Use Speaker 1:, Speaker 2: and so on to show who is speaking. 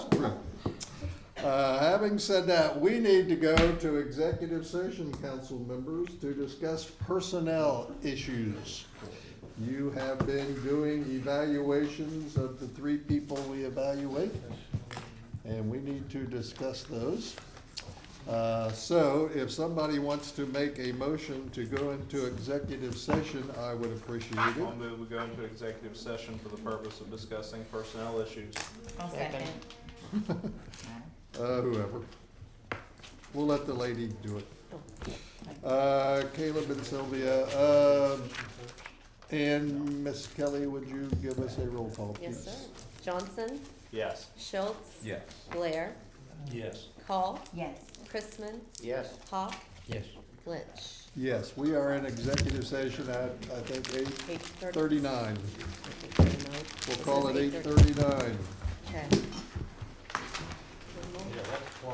Speaker 1: Uh, having said that, we need to go to executive session, council members, to discuss personnel issues. You have been doing evaluations of the three people we evaluate, and we need to discuss those. Uh, so if somebody wants to make a motion to go into executive session, I would appreciate it.
Speaker 2: I'll move we go into executive session for the purpose of discussing personnel issues.
Speaker 3: I'll second.
Speaker 1: Uh, whoever. We'll let the lady do it. Uh, Caleb and Sylvia, um, and Miss Kelly, would you give us a roll call, please?
Speaker 4: Yes, sir. Johnson,
Speaker 2: Yes.
Speaker 4: Schultz.
Speaker 2: Yes.
Speaker 4: Blair,
Speaker 2: Yes.
Speaker 4: Call,
Speaker 3: Yes.
Speaker 4: Chrisman,
Speaker 2: Yes.
Speaker 4: Hawk,
Speaker 5: Yes.
Speaker 4: Lynch.
Speaker 1: Yes, we are in executive session at, I think, eight
Speaker 4: Page thirty.
Speaker 1: thirty-nine. We'll call it eight
Speaker 4: This is
Speaker 1: thirty-nine.
Speaker 4: Okay.